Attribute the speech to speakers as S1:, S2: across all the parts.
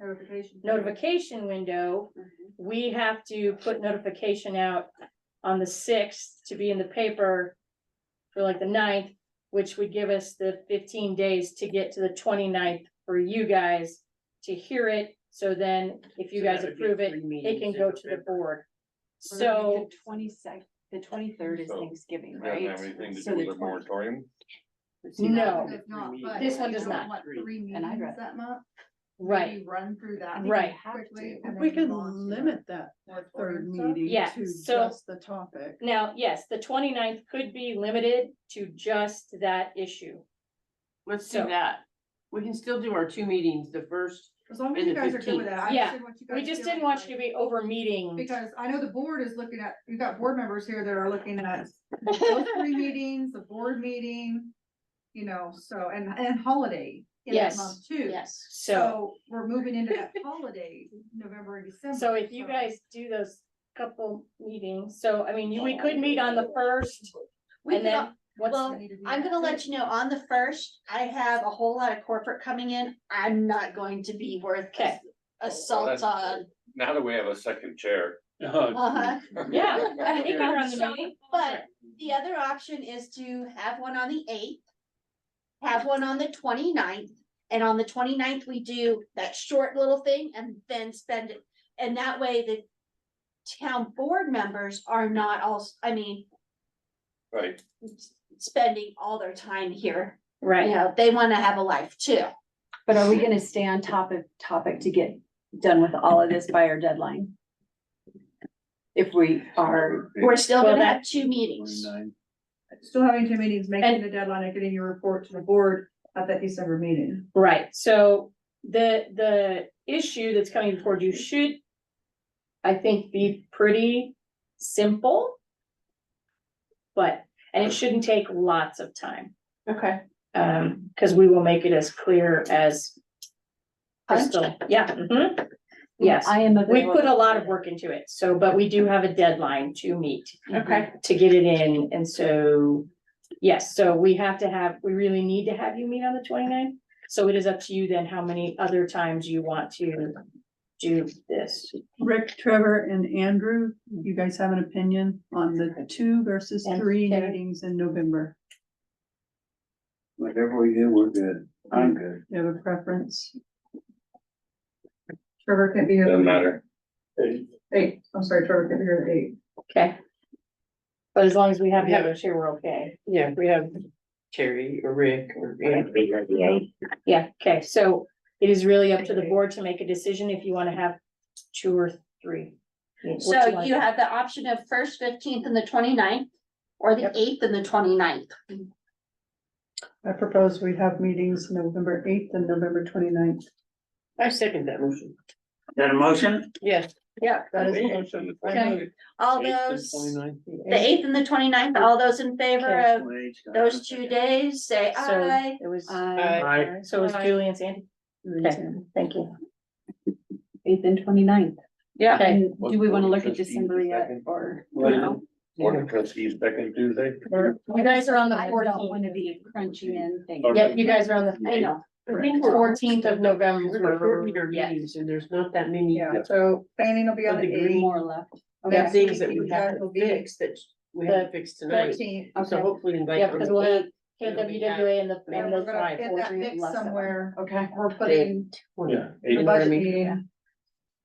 S1: Notification.
S2: notification window, we have to put notification out on the sixth to be in the paper for like the ninth, which would give us the fifteen days to get to the 29th for you guys to hear it. So then if you
S3: So
S2: guys
S3: that would be
S2: approve it,
S3: three
S2: it
S3: meetings
S2: can
S3: in
S2: go to the
S3: November.
S2: board. So
S4: Twenty-second, the twenty-third is
S5: So,
S4: Thanksgiving,
S5: It doesn't
S4: right?
S5: have anything to
S4: So
S5: do with
S4: the
S5: the
S4: 20
S5: moratorium?
S2: No.
S1: Does not, but
S2: This one does
S1: you don't
S2: not.
S1: want Three
S4: And I'd
S1: meetings
S4: rather-
S1: that month.
S2: Right,
S1: Maybe Run through that.
S2: Right.
S1: quickly and
S6: If we
S1: then
S6: could
S1: move on to
S6: limit that
S1: fourth quarter
S6: third
S1: stuff.
S6: meeting
S2: Yeah,
S6: to
S2: so-
S6: just the topic.
S2: now, yes, the 29th could be limited to just that issue.
S3: Let's
S2: So-
S3: do that. We can still do our two meetings, the first,
S1: As long as
S3: And
S1: you
S3: the
S1: guys are good with
S3: 15th.
S1: that. I
S2: Yeah,
S1: understand what you
S2: We
S1: guys
S2: just
S1: feel
S2: didn't want
S1: like.
S2: you to be over meeting.
S1: Because I know the board is looking at, you've got board members here that are looking at those three meetings, the board meeting, you know, so, and, and holiday in that
S2: Yes.
S1: month too.
S2: Yes, so.
S1: So we're moving into that holiday, November and December.
S2: So if you guys do those couple meetings, so I mean, you- we could meet on the first
S1: We
S2: and
S1: could
S2: then what's,
S7: Well, I'm gonna let you know, on the first, I have a whole lot of corporate coming in, I'm not going to be worth
S2: Okay.
S7: assault
S5: That's-
S7: on.
S5: Now that we have a second chair.
S7: Uh-huh.
S2: yeah. I think I run the
S7: So,
S2: meeting.
S7: But the other option is to have one on the eighth. Have one on the 29th, and on the 29th we do that short little thing and then spend it, and that way the. Town board members are not all, I mean,
S5: Right,
S7: spending all their time here, you
S2: Right,
S7: know, they wanna have a life too.
S4: But are we gonna stay on top of topic to get done with all of this by our deadline? If we are,
S7: We're still
S2: Well,
S7: gonna have two meetings.
S1: Still having two meetings, making
S2: And-
S1: the deadline and getting your report to the board at that December meeting.
S2: right. So the, the issue that's coming before you should, I think, be pretty simple. But, and it shouldn't take lots of time,
S4: okay,
S2: um, because we will make it as clear as crystal. Yeah, mhm. yes.
S4: I am.
S2: We
S4: available.
S2: put a lot of work into it, so, but we do have a deadline to meet,
S4: Okay,
S2: to get it in, and so. Yes, so we have to have, we really need to have you meet on the 29th. so it is up to you then how many other times you want to do this.
S6: Rick, Trevor and Andrew, you guys have an opinion on the two versus
S2: And
S6: three
S2: Terry.
S6: meetings in November?
S8: Whatever we do, we're good. I'm good.
S6: You have a preference?
S1: Trevor can't be here.
S8: Um,
S5: doesn't matter.
S1: Eight, I'm sorry, Trevor can't be here at eight.
S2: Okay. But as long as we have the
S3: Yeah.
S2: others here, we're okay.
S3: yeah, we have Terry or Rick or Andrew.
S2: Yeah, okay, so it is really up to the board to make a decision if you want to have two or three. What do
S7: So
S2: wanna
S7: you
S2: do?
S7: have the option of first fifteenth and the 29th, or the eighth and the 29th.
S6: I propose we have meetings November eighth and November 29th.
S3: I second that motion.
S8: That a motion?
S3: Yes.
S7: Yeah.
S6: That is a
S3: Okay.
S6: motion.
S2: Okay.
S7: All those, the eighth and the 29th. all those in favor of those two days, say
S2: So
S7: aye.
S2: It
S4: Uh,
S2: was,
S4: I,
S2: so it was Julie and Sandy, okay, thank you.
S4: eighth and 29th.
S3: Yeah.
S2: Okay.
S4: And do we wanna look at December yet or?
S5: Well, Board of trustees second Tuesday.
S2: You guys are on the
S4: I don't
S2: fourteenth.
S4: wanna be crunching in things.
S5: Okay.
S2: Yeah, you guys are on the,
S4: I know,
S2: I think fourteenth of
S3: We're
S2: November.
S3: shortening our
S2: Yeah.
S3: meetings and there's not that many
S1: Yeah, so planning will be on
S3: Of the
S1: the
S3: green
S1: eighth.
S4: more left.
S1: Yeah.
S4: Okay,
S3: things that we
S1: You guys
S3: have to
S1: will be-
S3: fix that we have to fix tonight.
S1: Thirteenth.
S3: So
S4: Okay.
S3: hopefully invite.
S2: Yeah, because
S3: them.
S2: we'll have KWWA and the,
S1: And
S2: and
S1: we're
S2: those
S1: gonna
S2: five.
S1: get
S2: four,
S1: that
S2: three,
S1: fixed
S2: less than one.
S1: somewhere.
S4: okay.
S1: We're putting
S5: Yeah.
S1: the
S3: Yeah.
S1: budget
S3: Yeah.
S1: meeting.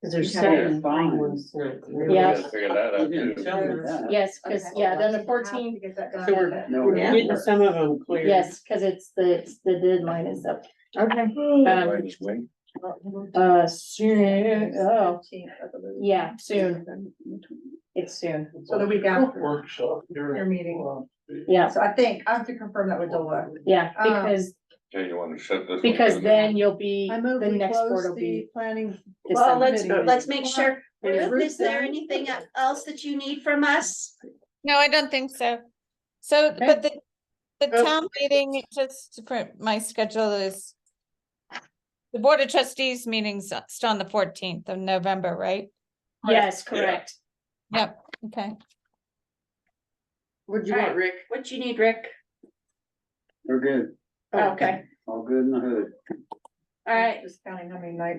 S3: Cause there's
S4: Yeah.
S3: seven fine ones tonight.
S5: We
S2: Yeah.
S5: gotta Figure that out too.
S2: Yes, because,
S1: Okay.
S2: yeah, then the
S1: Have to
S2: fourteenth,
S1: get that done.
S3: So We're getting some of them clear.
S2: yes, because it's the, it's the deadline is up.
S4: Okay.
S2: Um, uh, soon, oh,
S1: Fifteenth, I believe.
S2: yeah, soon. It's soon,
S1: So the week after
S5: Workshop.
S1: your meeting.
S2: yeah,
S1: So I think I have to confirm that with Dola.
S2: yeah,
S1: Um,
S2: because,
S5: Okay, you wanna shut this? one
S2: because
S5: down?
S2: then you'll be,
S6: I move
S2: the
S6: we
S2: next
S6: close
S2: board will
S6: the
S2: be.
S6: planning.
S2: December.
S7: Well, let's,
S6: December.
S7: let's make sure,
S6: Yeah.
S7: Ruth, is there anything else that you need from us?
S9: No, I don't think so. So, but the, the town meeting, just for my schedule is. The Board of Trustees meeting's still on the fourteenth of November, right?
S2: Yes, correct.
S9: Yep, okay.
S3: What'd you want, Rick?
S7: What you need, Rick?
S8: We're good.
S7: Okay,
S8: All good in the hood.
S7: all right.
S1: Just counting how many nights